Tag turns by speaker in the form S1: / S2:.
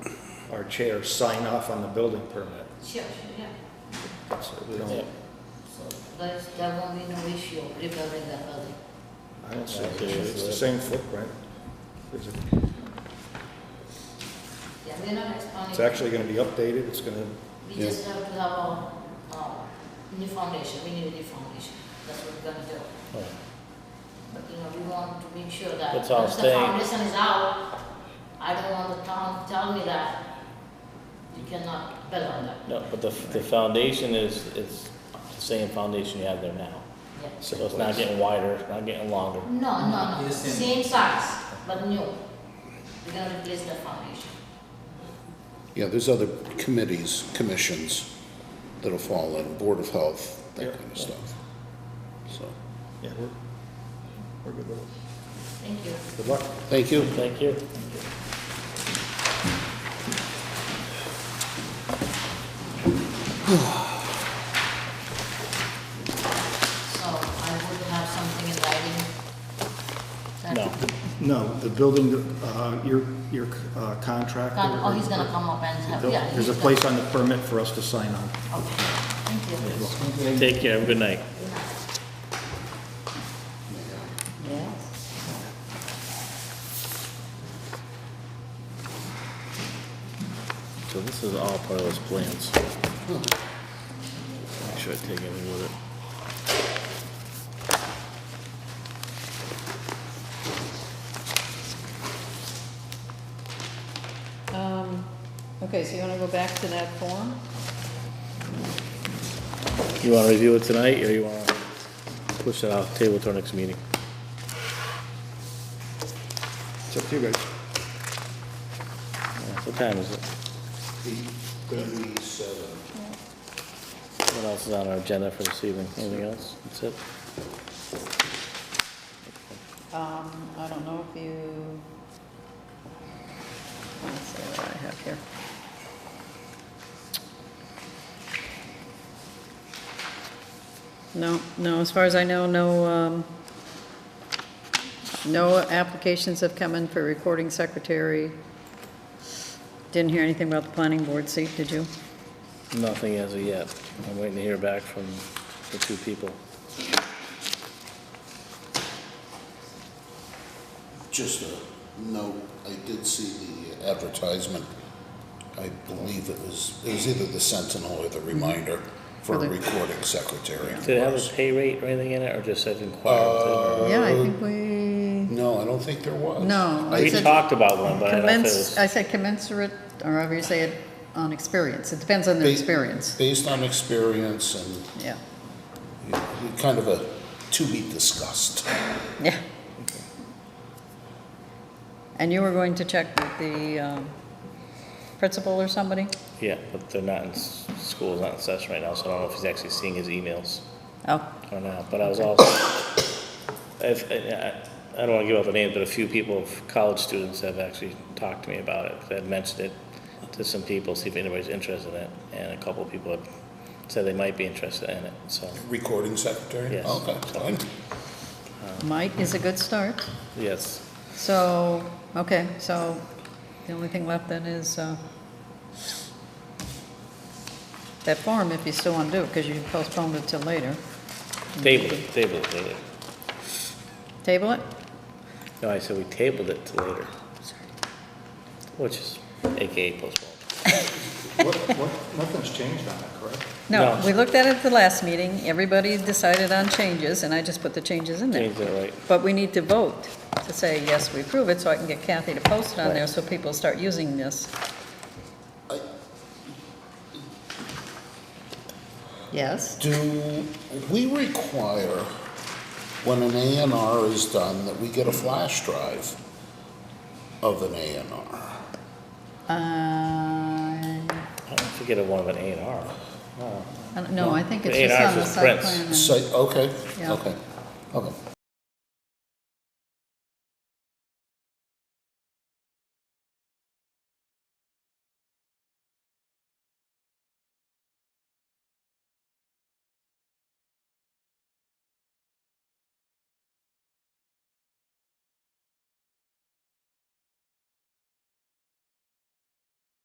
S1: our chair sign off on the building permit.
S2: Sure, yeah.
S1: So we
S2: Yeah.
S1: don't,
S2: So, but there won't be no issue regarding the building.
S1: I don't see it. It's the same footprint. Is it-
S2: Yeah, we're not expanding.
S1: It's actually gonna be updated, it's gonna,
S2: We
S3: Yeah.
S2: just have to have our, uh, new foundation, we need a new foundation, that's what we're gonna do.
S3: Right.
S2: But, you know, we want to make sure that.
S3: It's all
S2: once
S3: staying.
S2: The foundation is out, I don't want the town to tell me that you cannot build on that,
S3: No, but the, the foundation is, is the same foundation you have there now.
S2: yeah.
S3: So it's not getting wider, it's not getting longer.
S2: No, no, no,
S4: Yes, and-
S2: same size, but new. We're gonna replace the foundation.
S5: Yeah, there's other committees, commissions that'll fall in, Board of Health, that kind of stuff. So,
S1: yeah, we're, we're good with it.
S2: Thank you.
S1: Good luck.
S5: thank you.
S3: Thank you.
S2: So I would have something in writing. that-
S3: No.
S6: No, the building, uh, your, your uh, contractor.
S2: Con- Oh, he's gonna come up and have, yeah.
S6: There's a
S2: he's gonna-
S6: place on the permit for us to sign on.
S2: Okay, thank you.
S3: Take care, have a good night.
S2: Yes.
S3: So this is all part of those plans. Make sure I take anything with it.
S7: Um, Okay, so you want to go back to that form?
S3: You wanna review it tonight, or you wanna push it off, table to our next meeting?
S1: It's up to you guys.
S3: What time is it?
S5: uh,
S3: What else is on our agenda for this evening? Anything else? That's it?
S7: Um, I don't know if you... Let's see what I have here. No, no, as far as I know, no, um, no applications have come in for recording secretary. Didn't hear anything about the planning board seat, did you?
S3: Nothing as of yet. I'm waiting to hear back from the two people.
S5: Just a note, I did see the advertisement. I believe it was, it was either the Sentinel or the
S7: Mm-hmm.
S5: Reminder for a
S7: For the-
S5: recording secretary.
S3: Did it have a pay rate or anything in it, or just said inquire?
S7: Yeah, I think we...
S5: No, I don't think there was.
S7: No,
S5: I
S3: We
S7: It's a-
S3: talked about one, but I don't know if it
S7: Commence,
S3: was.
S7: I said commensurate, or however you say it, on experience. It depends on the
S5: Ba-
S7: experience,
S5: Based on experience and
S7: yeah.
S5: you know, kind of a to be discussed.
S7: Yeah. And you were going to check with the um, principal or somebody?
S3: Yeah, but they're not in, s- school's not in session right now, so I don't know if he's actually seeing his emails
S7: Oh,
S3: or not, but I was also, if, I, I don't wanna give up a name, but a few people, college students have actually talked to me about it, 'cause I had mentioned it to some people, see if anybody's interested in it, and a couple of people have said they might be interested in it, so,
S5: Recording secretary?
S3: Yes.
S5: Okay, fine.
S7: might is a good start.
S3: yes.
S7: So, okay, so the only thing left then is uh, that form, if you still want to do it, because you postponed it till later.
S3: Table it, table it later.
S7: Table it?
S3: No, I said we tabled it to later, which is AKA postponed.
S1: What, what, nothing's changed on that, correct?
S7: No,
S3: No.
S7: we looked at it at the last meeting, everybody decided on changes, and I just put the changes in there.
S3: Changed it right.
S7: But we need to vote to say, yes, we approve it, so I can get Kathy to post it on there
S3: Right.
S7: so people start using this. Yes?
S5: Do we require, when an A and R is done, that we get a flash drive of an A and R?
S7: Uh, I
S3: I don't forget a one of an A and R.
S7: don't- no, I think it's
S3: The
S7: just on
S3: A&Rs
S7: the
S3: is
S7: site
S3: prints.
S7: plan. and-
S5: Site, okay,
S7: Yeah.
S5: okay, okay.